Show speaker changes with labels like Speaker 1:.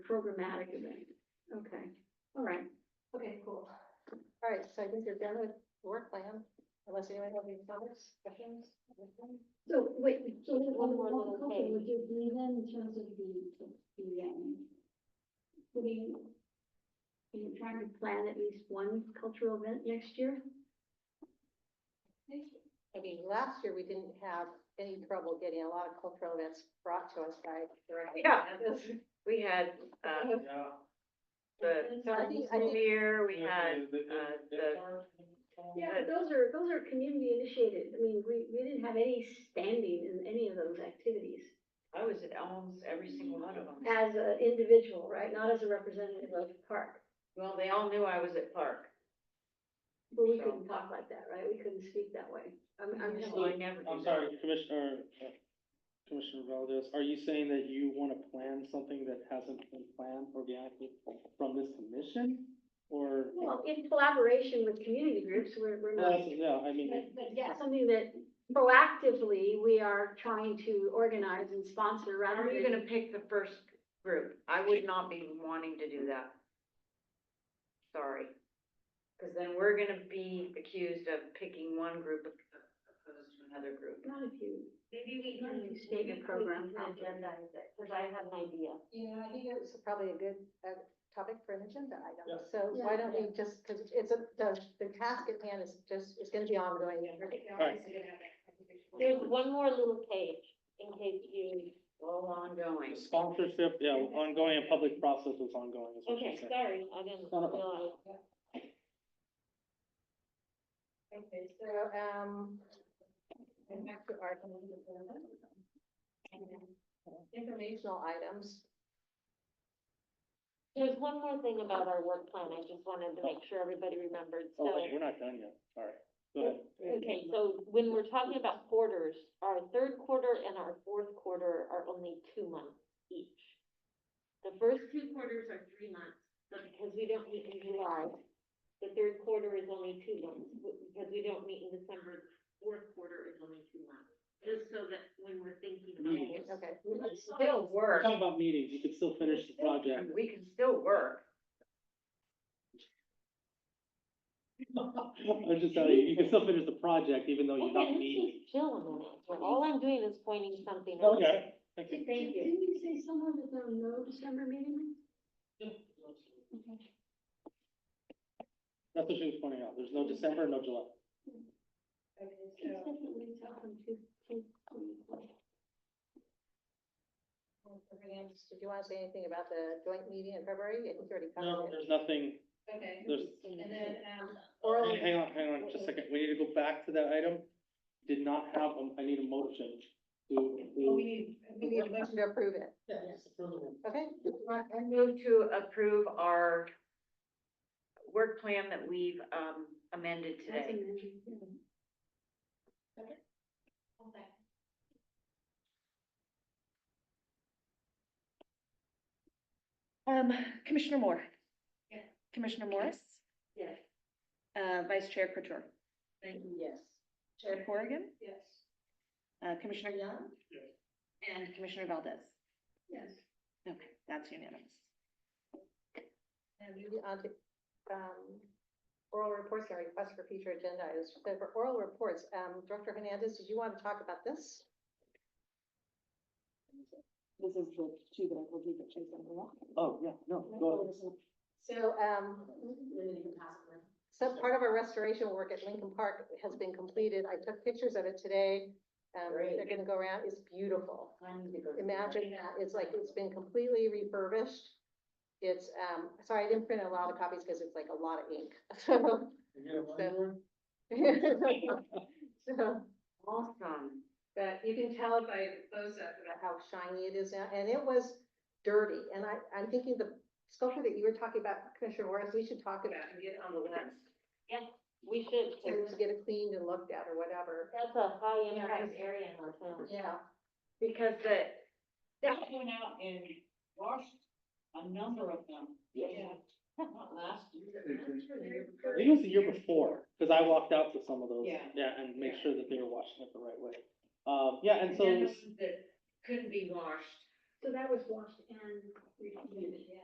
Speaker 1: programmatic event. Okay, all right.
Speaker 2: Okay, cool.
Speaker 3: All right, so I think you're done with the work plan, unless anyone has any comments, questions? anything?
Speaker 1: So wait,
Speaker 2: So
Speaker 1: one
Speaker 2: one
Speaker 1: more
Speaker 2: more
Speaker 1: little
Speaker 2: little
Speaker 1: thing.
Speaker 2: thing, would you agree then in terms of the, the, um,
Speaker 1: putting, are you trying to plan at least one cultural event next year?
Speaker 3: I mean, last year, we didn't have any trouble getting a lot of cultural events brought to us by.
Speaker 4: Yeah, we had, uh, the
Speaker 3: So I think, I think,
Speaker 4: premiere, we had, uh, the,
Speaker 1: Yeah, but those are, those are community initiated. I mean, we, we didn't have any standing in any of those activities
Speaker 4: I was at almost every single one of them.
Speaker 1: as an individual, right? Not as a representative of the park.
Speaker 4: Well, they all knew I was at Park,
Speaker 1: But we
Speaker 4: So-
Speaker 1: couldn't talk like that, right? We couldn't speak that way. I'm, I'm just.
Speaker 4: so I never. do
Speaker 5: I'm
Speaker 4: that.
Speaker 5: sorry, Commissioner, uh, Commissioner Valdez, are you saying that you want to plan something that hasn't been planned organically from this commission? Or,
Speaker 1: Well, in collaboration with community groups, we're, we're
Speaker 5: Well,
Speaker 1: not.
Speaker 5: that's- yeah, I mean,
Speaker 1: But, but yeah, something that proactively we are trying to organize and sponsor
Speaker 4: How
Speaker 1: rather
Speaker 4: are you
Speaker 1: than.
Speaker 4: gonna pick the first group? I would not be wanting to do that. Sorry. Cause then we're gonna be accused of picking one group opposed to another group.
Speaker 1: Not if you.
Speaker 6: Maybe we
Speaker 1: Not
Speaker 6: can.
Speaker 1: if you state your program properly.
Speaker 6: Because I have an idea.
Speaker 3: you know, I think it was probably a good uh, topic for an agenda item.
Speaker 5: Yeah.
Speaker 3: So why don't we just, because it's a, the, the task at hand is just, it's gonna be ongoing.
Speaker 5: right.
Speaker 6: There's one more little page in case you,
Speaker 4: All ongoing.
Speaker 5: sponsorship, yeah, ongoing and public process is ongoing. is what you're
Speaker 6: okay,
Speaker 5: saying.
Speaker 6: sorry, I didn't
Speaker 5: No, no problem.
Speaker 6: realize.
Speaker 3: Okay, so, um, and back to our um, community development. Informational items.
Speaker 6: There's one more thing about our work plan, I just wanted to make sure everybody remembered, so.
Speaker 5: Oh, wait, we're not done yet, all right, go ahead.
Speaker 6: Okay, so when we're talking about quarters, our third quarter and our fourth quarter are only two months each. The first two quarters are three months, but because we don't meet in July, the third quarter is only two months, but because we don't meet in December, fourth quarter is only two months. Just so that when we're thinking about it.
Speaker 3: Okay.
Speaker 4: It's still work.
Speaker 5: Talk about meetings, you can still finish the project.
Speaker 4: We can still work.
Speaker 5: I'm just telling you, you can still finish the project even though you're
Speaker 6: Okay,
Speaker 5: not
Speaker 6: let's
Speaker 5: meeting.
Speaker 6: just chill a minute, all I'm doing is pointing something out.
Speaker 5: Okay. okay.
Speaker 6: Thank you.
Speaker 1: Didn't you say somewhere that there are no December meetings?
Speaker 5: That's what she was pointing out, there's no December, no July.
Speaker 1: Consistently tell them to, to, to-
Speaker 3: Did you want to say anything about the joint meeting in February? I think you already covered
Speaker 5: No,
Speaker 3: it.
Speaker 5: there's nothing,
Speaker 2: okay,
Speaker 5: there's,
Speaker 2: and then, um,
Speaker 5: Hang hang on, hang on, just a second, we need to go back to that item. Did not have, um, I need a motion to,
Speaker 2: oh, we
Speaker 5: to,
Speaker 2: need, we need
Speaker 3: We need
Speaker 2: a
Speaker 3: a
Speaker 2: bunch
Speaker 3: motion to approve it.
Speaker 2: of.
Speaker 3: Okay,
Speaker 4: I move to approve our work plan that we've um, amended
Speaker 1: as
Speaker 4: today.
Speaker 1: amended, yeah.
Speaker 7: Um, Commissioner Moore.
Speaker 2: Yes.
Speaker 7: Commissioner Morris,
Speaker 2: Yes.
Speaker 7: uh, Vice Chair Couture,
Speaker 2: Thank you, yes.
Speaker 7: Chair Corrigan,
Speaker 2: Yes.
Speaker 7: uh, Commissioner Young.
Speaker 5: Yes.
Speaker 7: And Commissioner Valdez.
Speaker 2: Yes.
Speaker 7: Okay, that's unanimous.
Speaker 3: and moving on to, um, oral reports and requests for future agenda items. So For oral reports, um, Director Hernandez, did you want to talk about this?
Speaker 7: This is the two that I will do that Chase on the wall.
Speaker 5: oh, yeah, no, go ahead.
Speaker 3: So, um, so part of our restoration work at Lincoln Park has been completed. I took pictures of it today. Um,
Speaker 4: Great.
Speaker 3: they're gonna go around. It's beautiful.
Speaker 4: I need to go to the-
Speaker 3: imagine that, it's like, it's been completely refurbished. It's, um, sorry, I didn't print a lot of copies because it's like a lot of ink, so. So,
Speaker 4: Awesome.
Speaker 3: But you can tell by the close up about how shiny it is now, and it was dirty, and I, I'm thinking the sculpture that you were talking about, Commissioner Morris, we should talk about and get it on the list.
Speaker 6: Yes, we should,
Speaker 3: To
Speaker 6: 'cause
Speaker 3: get it cleaned and looked at or whatever.
Speaker 6: that's a high impact area in our town.
Speaker 3: Yeah.
Speaker 4: Because the,
Speaker 8: That went out and washed a number of them.
Speaker 4: Yeah.
Speaker 8: Not last year.
Speaker 5: I think it was the year before, because I walked out to some of those,
Speaker 8: Yeah.
Speaker 5: yeah, and make
Speaker 8: Yeah.
Speaker 5: sure that they were washing it the right way. Um, yeah, and so.
Speaker 8: And then that couldn't be washed.
Speaker 1: So that was washed and repeated, yeah.